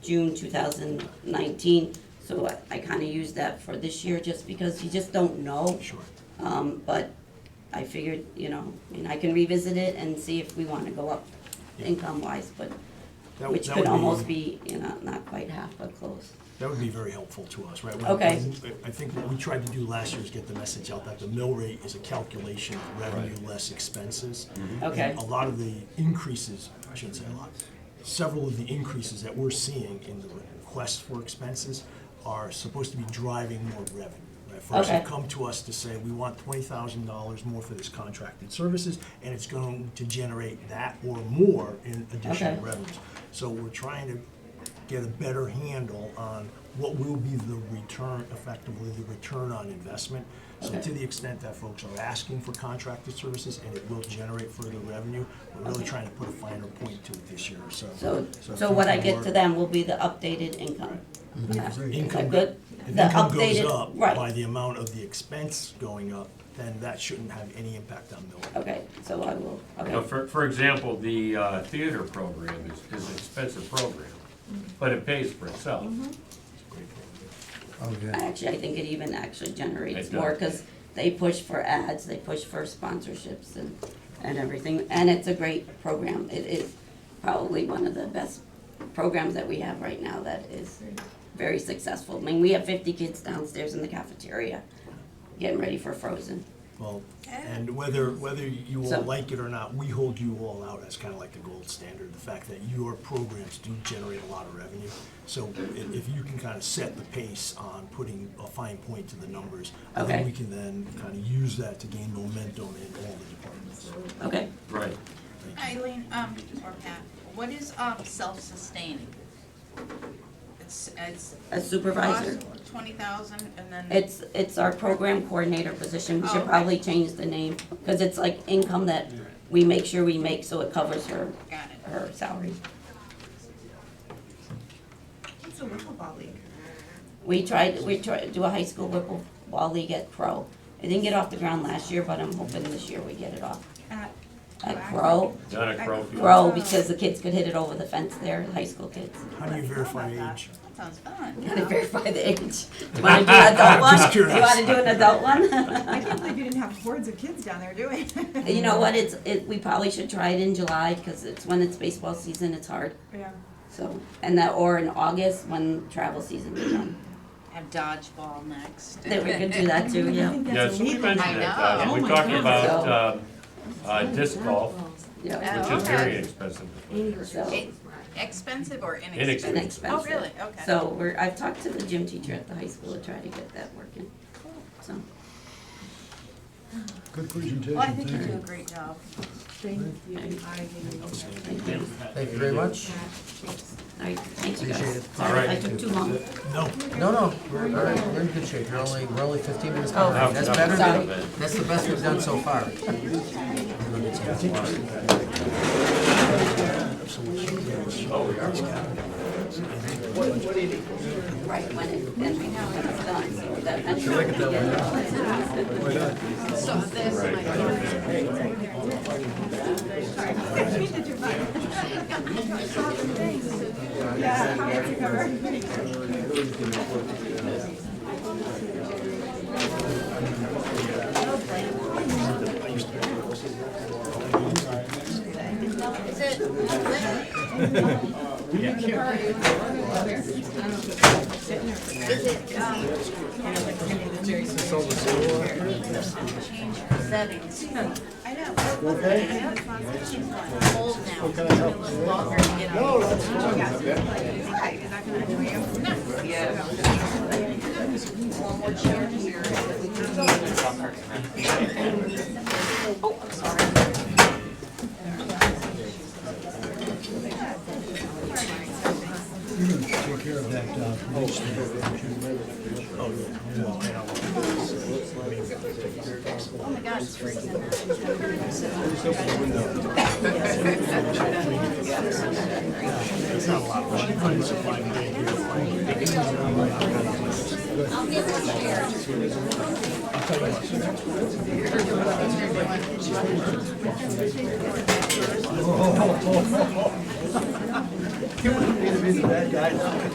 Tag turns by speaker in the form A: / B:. A: June two thousand nineteen. So I, I kinda used that for this year just because you just don't know.
B: Sure.
A: Um, but I figured, you know, I mean, I can revisit it and see if we wanna go up
B: Yeah.
A: income wise, but,
B: That would-
A: which
B: that
A: could
B: would
A: almost be, you know, not quite half, but close.
B: That would be very helpful to us, right? When-
A: Okay.
B: when- I think what we tried to do last year is get the message out that the mill rate is a calculation of revenue less expenses.
A: Mm-hmm. Okay.
B: And a lot of the increases, I shouldn't say a lot, several of the increases that we're seeing in the requests for expenses are supposed to be driving more revenue. right? Folks have
A: Okay.
B: come to us to say, we want twenty thousand dollars more for this contracted services, and it's going to generate that or more in additional
A: Okay.
B: revenues. So we're trying to get a better handle on what will be the return, effectively, the return on investment. So
A: Okay.
B: to the extent that folks are asking for contracted services and it will generate further revenue, we're really
A: Okay.
B: trying to put a finer point to it this year, so.
A: So,
B: if
A: so what I
B: you
A: get
B: were-
A: to them will be the updated income. Is
B: Income-
A: that good?
B: If
A: The
B: income goes
A: updated-
B: up by
A: Right,
B: the amount of the expense going up, then that shouldn't have any impact on mill. rate.
A: okay, so I will,
C: Now,
A: okay,
C: for, for example, the uh, theater program is, is an expensive program, but it pays for itself.
D: Mm-hmm.
B: Great point.
E: Oh, yeah.
A: actually, I think it even actually generates
C: It
A: more,
C: does.
A: cause they push for ads, they push for sponsorships and, and everything, and it's a great program, it is probably one of the best programs that we have right now that is very successful, I mean, we have fifty kids downstairs in the cafeteria, getting ready for Frozen,
B: Well, and whether, whether you
A: So-
B: all like it or not, we hold you all out as kind of like the gold standard, the fact that your programs do generate a lot of revenue. So if, if you can kind of set the pace on putting a fine point to the numbers, I
A: Okay.
B: think we can then kind of use that to gain momentum in all the departments.
A: okay?
C: Right.
F: Eileen, um, or Pat, what is, um, self-sustaining? It's, it's.
A: A supervisor.
F: Twenty thousand and then.
A: It's, it's our program coordinator position, we
F: Oh,
A: should
F: okay.
A: probably change the name, because it's like income that we make sure we make so it covers her,
F: Got it.
A: her salary.
D: It's a pickleball league.
A: We tried, we tried to do a high school whipple ball league at Crow. It didn't get off the ground last year, but I'm hoping this year we get it off.
D: At-
A: At Crow,
C: Down at Crowfield.
A: Crow, because the kids could hit it over the fence there, high school kids.
B: How do you verify
D: about
B: age?
F: That sounds fun.
A: Gotta verify the age. Do you wanna do an adult one?
B: Just
A: Do you wanna do an adult
D: I
A: one?
D: can't believe you didn't have hordes of kids down there doing it.
A: You know what, it's, it, we probably should try it in July, because it's when it's baseball season, it's hard.
D: Yeah.
A: So, and that, or in August when travel season is done.
F: Have dodgeball next.
A: That we could do that too,
D: I
A: yeah,
D: think
C: Yeah,
D: that's
C: somebody
D: illegal.
C: mentioned
F: I
C: that, uh,
F: know.
C: we
D: Oh my
C: talked
D: God.
C: about, uh, uh, disc golf,
A: yeah.
F: Oh,
C: which is very
F: okay.
C: expensive.
A: So,
F: Expensive or
C: Inexpensive.
F: inexpensive? Oh,
A: Inexpensive.
F: really? Okay.
A: so we're, I've talked to the gym teacher at the high school to try to get that working, so.
E: Good
F: Well, I
E: presentation,
F: think you
E: thank
F: do a
E: you.
F: great job.
B: Outstanding.
E: Thank you very much.
A: All right, thank you guys.
E: Appreciate it.
A: Sorry, I
C: Alright.
A: took too long.
B: No,
E: No, no, we're, all right, we're in good shape, you're only, we're only fifteen minutes
F: Oh.
E: behind, that's
C: Enough-
E: better
C: enough
E: than,
C: of it.
E: that's the best we've done so far.
A: Right, when it, then we know it's done, so that. that's-
F: So this, my.
D: Yeah, how did you cover?
F: Is it lit? Is it, um, settings? I know. Okay. Old now. It's gonna look longer to get on.
E: You're gonna take care of that, uh,
F: Oh my God, it's freezing.
B: it's not a lot. You wouldn't be the bad guy.